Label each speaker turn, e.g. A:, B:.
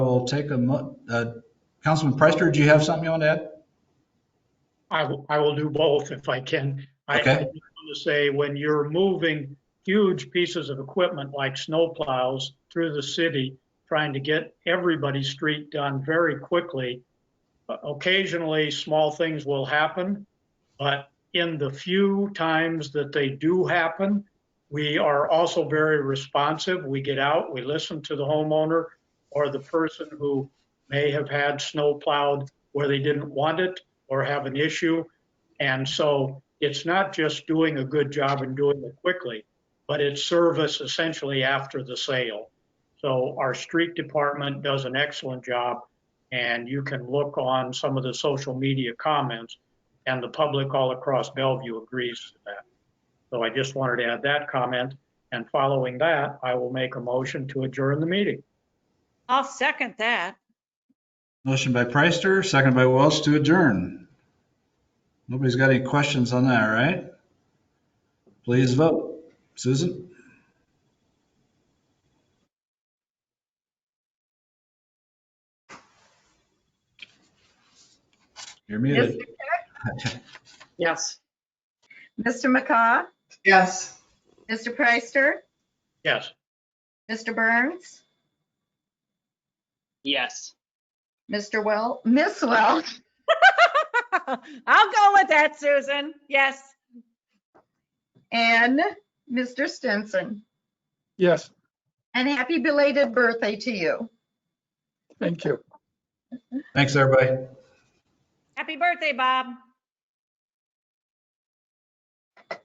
A: will take a, mo- uh, Councilman Preister, do you have something you want to add?
B: I will, I will do both if I can. I I
A: Okay.
B: just want to say, when you're moving huge pieces of equipment like snowplows through the city, trying to get everybody's street done very quickly, o- occasionally, small things will happen. But in the few times that they do happen, we are also very responsive. We get out, we listen to the homeowner or the person who may have had snow plowed where they didn't want it or have an issue. And so it's not just doing a good job and doing it quickly, but it's service essentially after the sale. So our street department does an excellent job and you can look on some of the social media comments and the public all across Bellevue agrees to that. So I just wanted to add that comment and following that, I will make a motion to adjourn the meeting.
C: I'll second that.
A: Motion by Preister, second by Welch to adjourn. Nobody's got any questions on that, right? Please vote. Susan? You're muted.
D: Mr.
C: Yes.
D: McCaw,
E: Yes.
D: Mr. Preister,
B: Yes.
D: Mr. Burns,
F: Yes.
D: Mr. Well, Miss Welch,
C: I'll go with that, Susan. Yes.
D: and Mr. Stinson.
G: Yes,
D: And happy belated birthday to you.
G: thank you.
A: Thanks, everybody.
C: Happy birthday, Bob.